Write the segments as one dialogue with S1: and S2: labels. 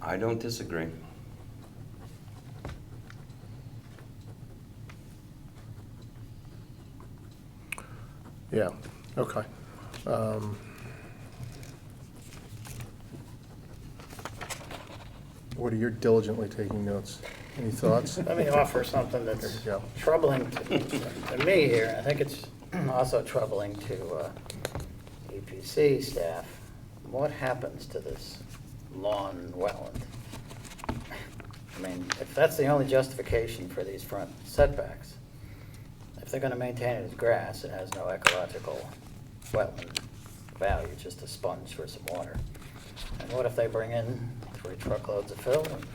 S1: I don't disagree.
S2: Yeah, okay. Um, Woody, you're diligently taking notes. Any thoughts?
S3: Let me offer something that's
S2: There you go.
S3: troubling to to me here. I think it's also troubling to uh, EPC staff. What happens to this lawn wetland? I mean, if that's the only justification for these front setbacks, if they're going to maintain it as grass, it has no ecological wetland value, just a sponge for some water. And what if they bring in three truckloads of fill and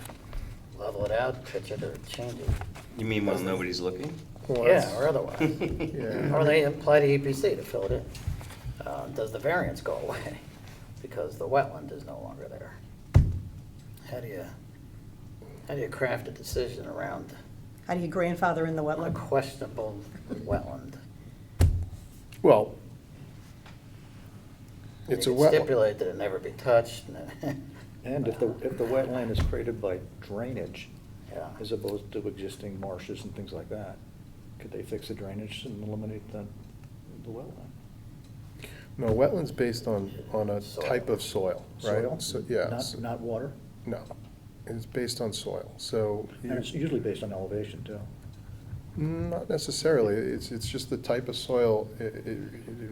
S3: level it out, pitch it, or change it?
S1: You mean while nobody's looking?
S2: Well,
S3: Yeah, or
S2: that's-
S3: otherwise.
S2: Yeah.
S3: Or they apply to EPC to fill it in. Uh, Does the variance go away because the wetland is no longer there? How do you, how do you craft a decision around
S4: How do you grandfather in the
S3: a
S4: wetland?
S3: questionable wetland?
S2: Well, it's a
S3: You could
S2: wetland.
S3: Stipulate that it never be touched, and then-
S5: And if the, if the wetland is created by drainage,
S3: yeah.
S5: as opposed to existing marshes and things like that, could they fix the drainage and eliminate the, the wetland?
S2: No, wetland's based on, on a type of soil, right?
S5: Soil?
S2: So, yeah,
S5: Not,
S2: so-
S5: not water?
S2: no, it's based on soil, so. you-
S5: And it's usually based on elevation, too.
S2: Not necessarily, it's, it's just the type of soil, it, it it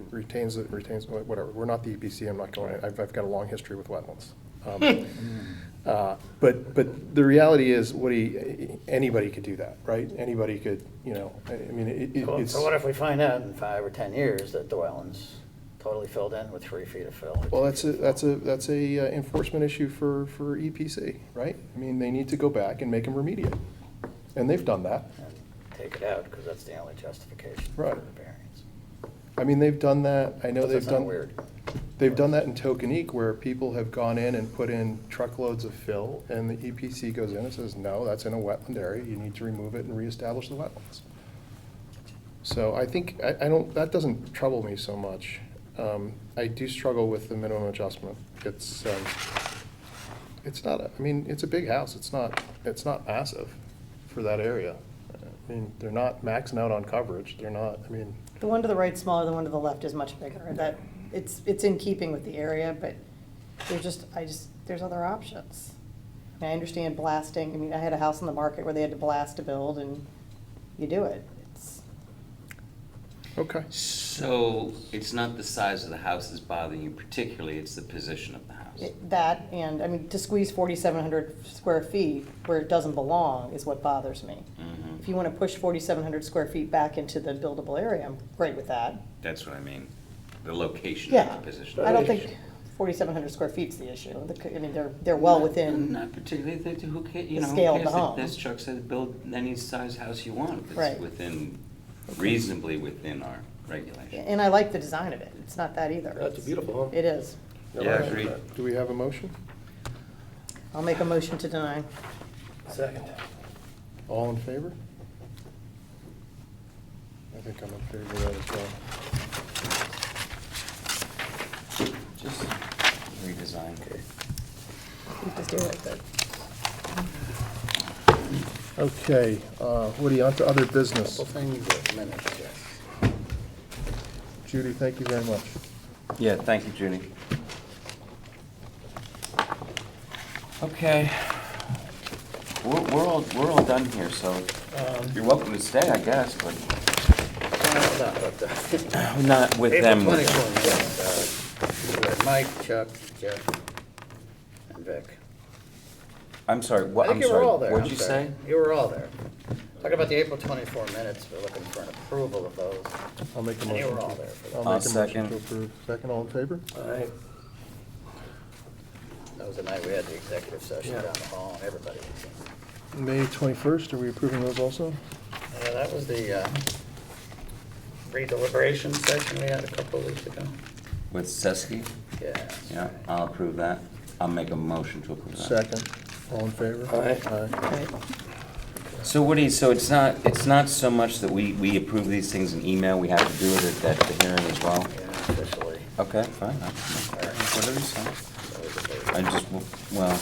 S2: retains, it retains, whatever, we're not the EPC, I'm not going, I've, I've got a long history with wetlands. Um, uh, But, but the reality is, Woody, anybody could do that, right? Anybody could, you know, I I mean, it, it-
S3: Well,
S2: it's.
S3: So what if we find out in five or 10 years that the wetland's totally filled in with three feet of fill? or two
S2: Well, that's
S3: feet
S2: a,
S3: of fill?
S2: that's a, that's a uh, enforcement issue for, for EPC, right? I mean, they need to go back and make them remediate, and they've done that.
S3: and take it out, because that's the only justification for
S2: Right.
S3: the variance.
S2: I mean, they've done that, I know
S3: Doesn't
S2: they've
S3: sound
S2: done.
S3: Weird.
S2: They've done that in Tokenique where people have gone in and put in truckloads of fill and the EPC goes in and says, no, that's in a wetland area, you need to remove it and reestablish the wetlands. So I think, I, I don't, that doesn't trouble me so much. Um, I do struggle with the minimum adjustment. It's, um, it's not, a- I mean, it's a big house, it's not, it's not massive for that area. I mean, they're not maxing out on coverage, they're not, I mean,
S4: The one to the right is smaller, the one to the left is much bigger. That, it's, it's in keeping with the area, but there's just, I just, there's other options. I mean, I understand blasting, I mean, I had a house on the market where they had to blast to build and you do it. It's,
S2: okay.
S1: So it's not the size of the house that's bothering you particularly, it's the position of the house.
S4: it- that and, I mean, to squeeze forty-seven hundred square feet where it doesn't belong is what bothers me.
S1: Mhm.
S4: If you wanna push forty-seven hundred square feet back into the buildable area, I'm great with that.
S1: That's what I mean, the location
S4: Yeah,
S1: of the position.
S4: I don't think forty-seven hundred square feet's the issue. The c- I mean, they're, they're well within,
S1: Not particularly, they- they- who ca- you
S4: The
S1: know, who
S4: scale of
S1: cares
S4: the
S1: that-
S4: home.
S1: As Chuck said, build any size house you want, if it's
S4: Right.
S1: within, reasonably within our regulation.
S4: and I like the design of it. It's not that either.
S6: That's a beautiful home.
S4: It is.
S1: Yeah, agreed.
S2: Do we have a motion?
S4: I'll make a motion to deny.
S3: Second.
S2: All in favor? I think I'm in favor of that as well.
S1: Just redesign.
S4: We just do it, but
S2: Okay, uh, Woody, on to other business.
S3: Couple things that minutes, yes.
S2: Judy, thank you very much.
S1: Yeah, thank you, Judy. Okay. We're, we're all, we're all done here, so
S3: Um,
S1: you're welcome to stay, I guess, but
S3: No, no, but, uh,
S1: not with
S3: April
S1: them.
S3: 24th, yes, uh, we had Mike, Chuck, Jeff, and Vic.
S1: I'm sorry,
S3: I
S1: what, I'm
S3: think you were
S1: sorry,
S3: all there.
S1: what'd
S3: I'm
S1: you
S3: sorry.
S1: say?
S3: You were all there. Talking about the April 24 minutes, we're looking for an approval of those.
S2: I'll make a
S3: And
S2: motion.
S3: you were all
S2: to-
S3: there for
S2: I'll
S3: that.
S1: I'll
S2: make a motion
S1: second.
S2: to approve. Second, all in favor?
S6: Aye.
S3: That was the night we had the executive session
S6: Yeah.
S3: down the hall, and everybody was in.
S2: May 21st, are we approving those also?
S3: Yeah, that was the uh, re-deliberation session we had a couple of weeks ago.
S1: With Seskey?
S3: Yeah. that's
S1: Yeah,
S3: right.
S1: I'll approve that. I'll make a motion to approve that.
S2: Second, all in favor?
S6: Aye.
S2: Aye.
S1: So Woody, so it's not, it's not so much that we, we approve these things in email, we have to do it at, at the hearing as well?
S3: Yeah, officially.
S1: Okay, fine. I- Whatever you say.
S3: that was the date.
S1: I just, well,